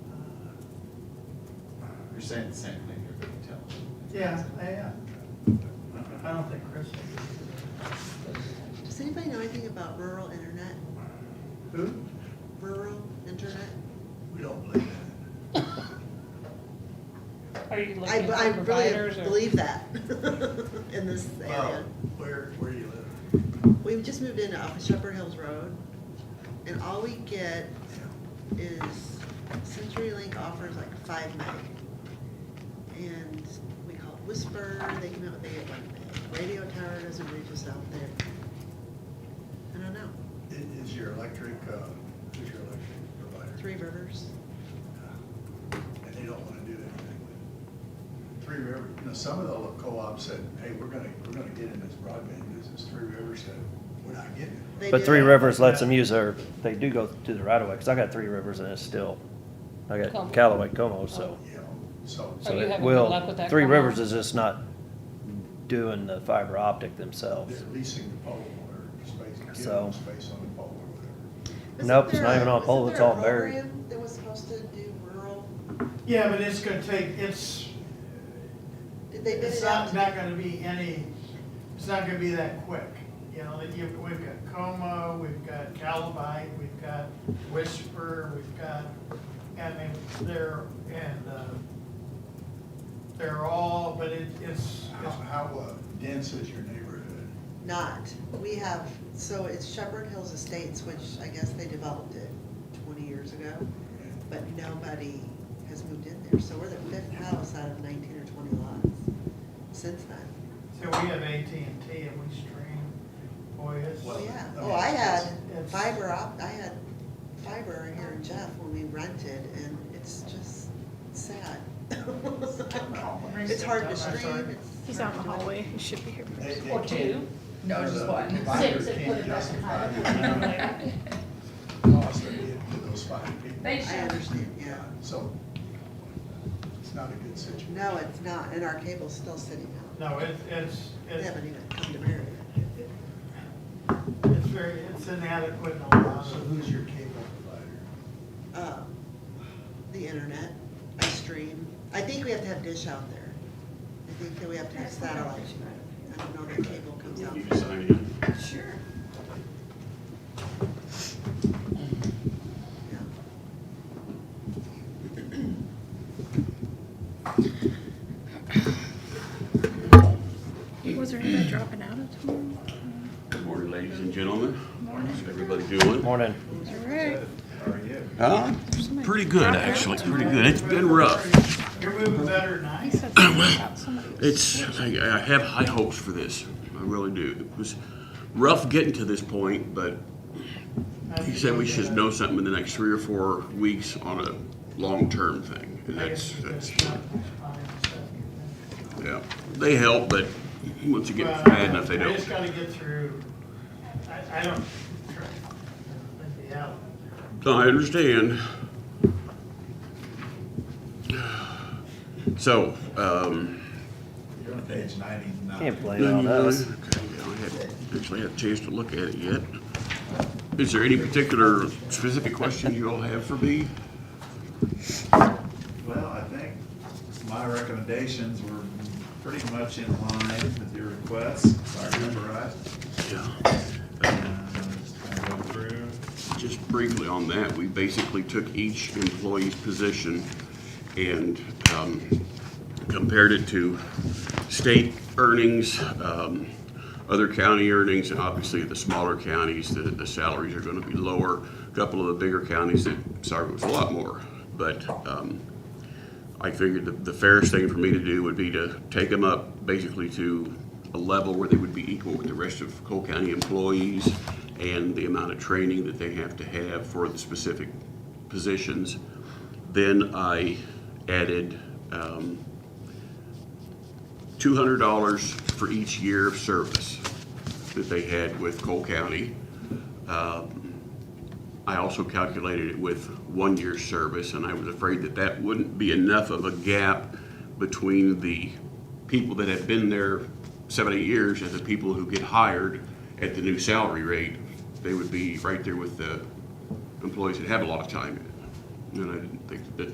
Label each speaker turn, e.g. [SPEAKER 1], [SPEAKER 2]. [SPEAKER 1] You're saying the same thing you're gonna tell them.
[SPEAKER 2] Yeah, I, uh, I don't think Chris.
[SPEAKER 3] Does anybody know anything about rural internet,
[SPEAKER 2] Who?
[SPEAKER 3] rural internet?
[SPEAKER 2] We don't believe that.
[SPEAKER 4] Are you
[SPEAKER 3] I,
[SPEAKER 4] looking
[SPEAKER 3] I
[SPEAKER 4] for providers
[SPEAKER 3] really
[SPEAKER 4] or?
[SPEAKER 3] believe that in this area.
[SPEAKER 2] Where, where you live?
[SPEAKER 3] We've just moved into off of Shepherd Hills Road, and all we get is CenturyLink offers like five meg. And we call it Whisper, they come out, they get one meg. Radio Tower doesn't reach us out there. I don't know,
[SPEAKER 2] Is, is your electric, uh, who's your electric provider? uh,
[SPEAKER 3] Three Rivers,
[SPEAKER 2] And they don't wanna do anything with it. Three River, you know, some of the little co-ops said, hey, we're gonna, we're gonna get in this broadband business. Three Rivers said, we're not getting it.
[SPEAKER 3] they
[SPEAKER 5] But
[SPEAKER 3] did
[SPEAKER 5] Three
[SPEAKER 3] it.
[SPEAKER 5] Rivers lets them use their, they do go to the right of way, cause I got Three Rivers and it's still, I
[SPEAKER 4] Como.
[SPEAKER 5] got Callaway Como, so.
[SPEAKER 2] You know, so,
[SPEAKER 4] Are
[SPEAKER 5] So
[SPEAKER 4] you
[SPEAKER 5] it
[SPEAKER 4] having good
[SPEAKER 5] will-
[SPEAKER 4] luck with that
[SPEAKER 5] Three
[SPEAKER 4] Como?
[SPEAKER 5] Rivers is just not doing the fiber optic themselves.
[SPEAKER 2] they're leasing the pole or space, giving
[SPEAKER 5] So-
[SPEAKER 2] them space on the pole or whatever.
[SPEAKER 3] Wasn't
[SPEAKER 5] Nope, it's
[SPEAKER 3] there
[SPEAKER 5] not
[SPEAKER 3] a-
[SPEAKER 5] even on a pole,
[SPEAKER 3] wasn't
[SPEAKER 5] it's
[SPEAKER 3] there a
[SPEAKER 5] all buried.
[SPEAKER 3] program That was supposed to do rural,
[SPEAKER 6] Yeah, but it's gonna take, it's,
[SPEAKER 3] did they bid
[SPEAKER 6] it's
[SPEAKER 3] it
[SPEAKER 6] not,
[SPEAKER 3] out?
[SPEAKER 6] not gonna be any, it's not gonna be that quick. You know, that you, we've got Como, we've got Calabite, we've got Whisper, we've got, I mean, they're, and, uh, they're all, but it, it's,
[SPEAKER 2] How, how uh, dense is your neighborhood?
[SPEAKER 3] Not, we have, so it's Shepherd Hills Estates, which I guess they developed it twenty years ago, but nobody has moved in there, so we're the fifth house out of nineteen or twenty lots since then.
[SPEAKER 6] so we have AT&T and we stream, boy, it's.
[SPEAKER 2] Well,
[SPEAKER 3] Oh, yeah,
[SPEAKER 2] I
[SPEAKER 3] oh,
[SPEAKER 2] mean,
[SPEAKER 3] I had
[SPEAKER 6] it's-
[SPEAKER 3] fiber op, I had fiber here in Jeff when we rented, and it's just sad. It's hard to stream, it's.
[SPEAKER 7] He's out in the hallway, he should be here.
[SPEAKER 2] They- they
[SPEAKER 4] Or
[SPEAKER 2] can't-
[SPEAKER 4] two?
[SPEAKER 2] No, just one.
[SPEAKER 8] Six, and put it back behind.
[SPEAKER 2] Cost of getting to those five people.
[SPEAKER 8] They
[SPEAKER 3] I
[SPEAKER 8] should.
[SPEAKER 3] understand, yeah.
[SPEAKER 2] So it's not a good situation.
[SPEAKER 3] No, it's not, and our cable's still sitting out.
[SPEAKER 6] No, it, it's,
[SPEAKER 3] They
[SPEAKER 6] it's,
[SPEAKER 3] haven't even come to Marion.
[SPEAKER 6] it's very, it's inadequate in a lot
[SPEAKER 2] So
[SPEAKER 6] of.
[SPEAKER 2] who's your cable provider?
[SPEAKER 3] Uh, The internet, I stream. I think we have to have dish out there. I think that we have to have satellite. I don't know that cable comes out.
[SPEAKER 1] You just sign in.
[SPEAKER 8] Sure.
[SPEAKER 3] Yeah.
[SPEAKER 7] Was there anybody dropping out of tomorrow
[SPEAKER 9] Good morning, ladies and gentlemen.
[SPEAKER 7] morning?
[SPEAKER 9] How's everybody doing?
[SPEAKER 5] Morning.
[SPEAKER 7] All right.
[SPEAKER 2] How are you?
[SPEAKER 9] Huh? Pretty good, actually, pretty good. It's been rough.
[SPEAKER 6] You're moving better than I
[SPEAKER 7] He
[SPEAKER 6] am.
[SPEAKER 7] said something about somebody.
[SPEAKER 9] It's, I I have high hopes for this. I really do. It was rough getting to this point, but he said we should know something in the next three or four weeks on a long-term thing. And that's, that's, yeah. They help, but once you get bad enough, they
[SPEAKER 6] I
[SPEAKER 9] don't.
[SPEAKER 6] just gotta get through, I, I don't, I'd be out.
[SPEAKER 9] No, I understand. So, um,
[SPEAKER 2] You're on page ninety-nine.
[SPEAKER 5] Can't blame
[SPEAKER 9] No,
[SPEAKER 5] on
[SPEAKER 9] you really-
[SPEAKER 5] us.
[SPEAKER 9] okay, I haven't Actually, had a chance to look at it yet. Is there any particular specific question you all have for me?
[SPEAKER 1] Well, I think my recommendations were pretty much in line with your request, if I remember right. Uh,
[SPEAKER 9] Yeah.
[SPEAKER 1] And just kinda go through.
[SPEAKER 9] Just briefly on that, we basically took each employee's position and um, compared it to state earnings, um, other county earnings, and obviously the smaller counties, the, the salaries are gonna be lower. A Couple of the bigger counties, the salary was a lot more, but, um, I figured the, the fairest thing for me to do would be to take them up basically to a level where they would be equal with the rest of Cole County employees and the amount of training that they have to have for the specific positions. Then I added, um, two hundred dollars for each year of service that they had with Cole County. I also calculated it with one year's service, and I was afraid that that wouldn't be enough of a gap between the people that have been there seven, eight years and the people who get hired at the new salary rate. They would be right there with the employees that have a lot of time in it. And I didn't think that